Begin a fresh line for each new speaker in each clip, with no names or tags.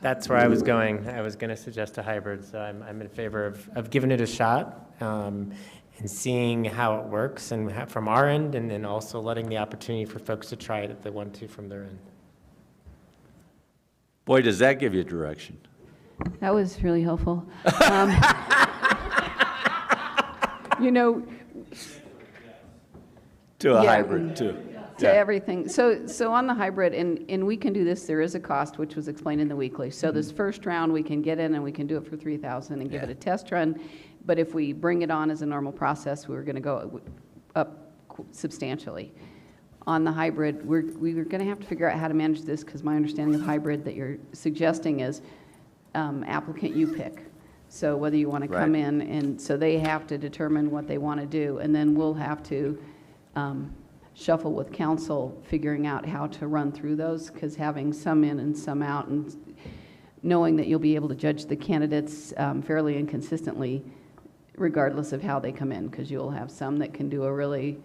That's where I was going. I was going to suggest a hybrid, so I'm, I'm in favor of, of giving it a shot um, and seeing how it works and ha- from our end, and then also letting the opportunity for folks to try it if they want to from their end.
Boy, does that give you direction.
That was really helpful. Um, You know,
To a
Yeah.
hybrid, too.
to everything. So, so on the hybrid, and, and we can do this, there is a cost, which was explained in the weekly. So this first round, we can get in and we can do it for 3,000 and give it
Yeah.
a test run. But if we bring it on as a normal process, we're going to go up qu- substantially. On the hybrid, we're, we're going to have to figure out how to manage this because my understanding of hybrid that you're suggesting is um, applicant you pick. So whether you want to come
Right.
in, and so they have to determine what they want to do. And then we'll have to um, shuffle with council, figuring out how to run through those, because having some in and some out, and knowing that you'll be able to judge the candidates um, fairly and consistently regardless of how they come in, because you'll have some that can do a really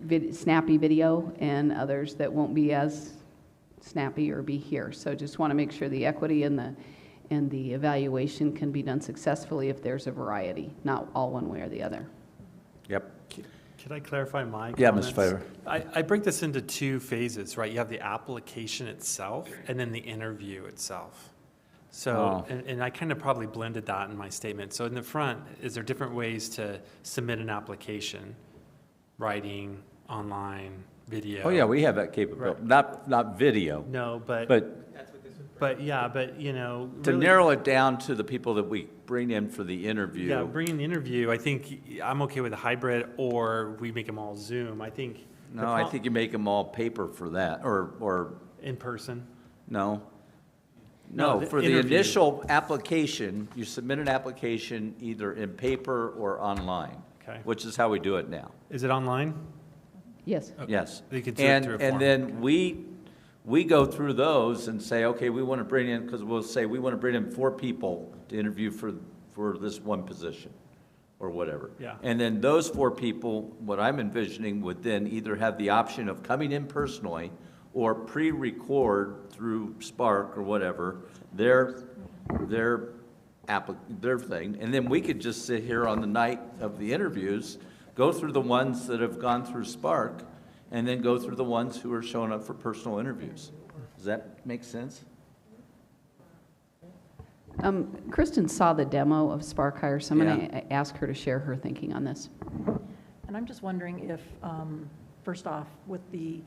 vid- snappy video and others that won't be as snappy or be here. So just want to make sure the equity and the, and the evaluation can be done successfully if there's a variety, not all one way or the other.
Yep.
Could I clarify my comments?
Yeah, Ms. Favor.
I, I break this into two phases, right? You have the application itself and then the interview itself. So,
Oh.
and, and I kind of probably blended that in my statement. So in the front, is there different ways to submit an application? Writing, online, video?
Oh, yeah, we have that capability. Not, not video,
No, but,
but
but yeah, but you know.
to
really-
narrow it down to the people that we bring in for the
Yeah,
interview.
bringing the interview, I think I'm okay with a hybrid or we make them all Zoom. I think. the
No, I
pro-
think you make them all paper for that, or, or,
In person.
no?
No,
No,
the
for the
interview.
initial application, you submit an application either in paper or online.
Okay.
Which is how we do it now.
Is it online?
Yes,
Yes.
You could do it
And-
through a form.
And then we, we go through those and say, okay, we want to bring in, because we'll say, we want to bring in four people to interview for, for this one position, or whatever.
Yeah.
And then those four people, what I'm envisioning, would then either have the option of coming in personally or pre-record through Spark or whatever, their, their applic, their thing. And then we could just sit here on the night of the interviews, go through the ones that have gone through Spark, and then go through the ones who are showing up for personal interviews. Does that make sense?
Um, Kristen saw the demo of Spark Hire, so I'm going
Yeah.
to ask her to share her thinking on this.
And I'm just wondering if, um, first off, with the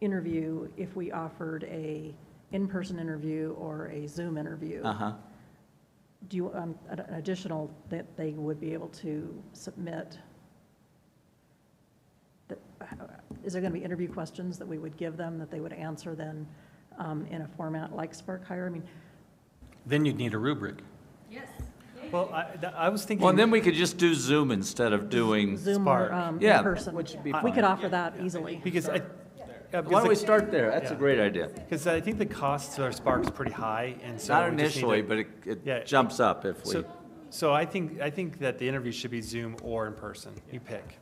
interview, if we offered a in-person interview or a Zoom interview,
Uh-huh.
do you, um, an an additional that they would be able to submit? that- uh, Is there going to be interview questions that we would give them that they would answer then um, in a format like Spark Hire? I mean,
Then you'd need a rubric.
Well, I, th- I was thinking.
Well, and then we could just do Zoom instead of doing,
Zoom
Spark.
or um,
Yeah,
in-person?
which would be
We
fine.
could offer that easily.
Because I,
why
yeah,
don't we
because,
start there? That's a
Yeah.
great idea.
because I think the costs of Spark's pretty high, and so.
Not
we just need to-
initially, but it,
Yeah.
it jumps up if we,
So, so I think, I think that the interview should be Zoom or in person, you pick,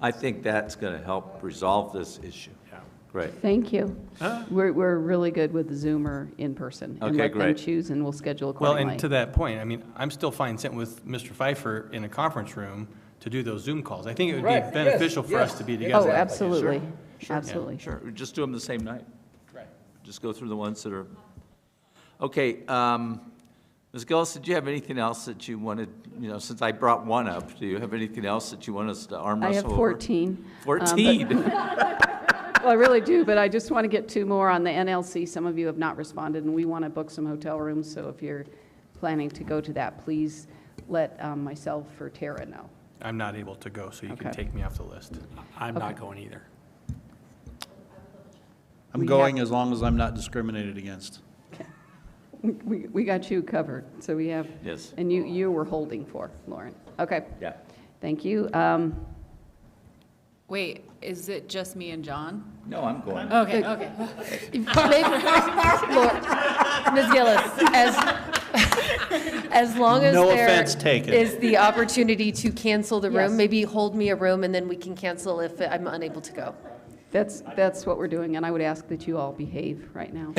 I think that's gonna help resolve this issue.
yeah.
Great.
Thank you.
Huh?
We're, we're really good with Zoom or in person. And
Okay,
let them
great.
choose and we'll schedule
Well,
accordingly.
and to that point, I mean, I'm still fine sitting with Mr. Pfeiffer in a conference room to do those Zoom calls. I think it would be beneficial for us to be together.
Oh, absolutely, absolutely.
Sure, we just do them the same night. Just go through the ones that are, okay, um, Ms. Gillis, did you have anything else that you wanted, you know, since I brought one up, do you have anything else that you want us to arm
I
wrestle
have
over?
14. Um,
Fourteen?
but- Well, I really do, but I just want to get two more on the NLC. Some of you have not responded, and we want to book some hotel rooms, so if you're planning to go to that, please let um, myself or Tara know.
I'm not able to go, so you can
Okay.
take me off the list.
I'm not going either.
We
I'm
have-
going as long as I'm not discriminated against.
We- We we got you covered, so we have,
Yes,
and you, you were holding for, Lauren. Okay,
yeah.
thank you. Um,
Wait, is it just me and John?
No, I'm going.
Okay, okay. Ms. Gillis, as, as long as
No
there
offense taken.
is the opportunity to cancel the
Yes.
room, maybe hold me a room and then we can cancel if I'm unable to go.
That's, that's what we're doing, and I would ask that you all behave right now.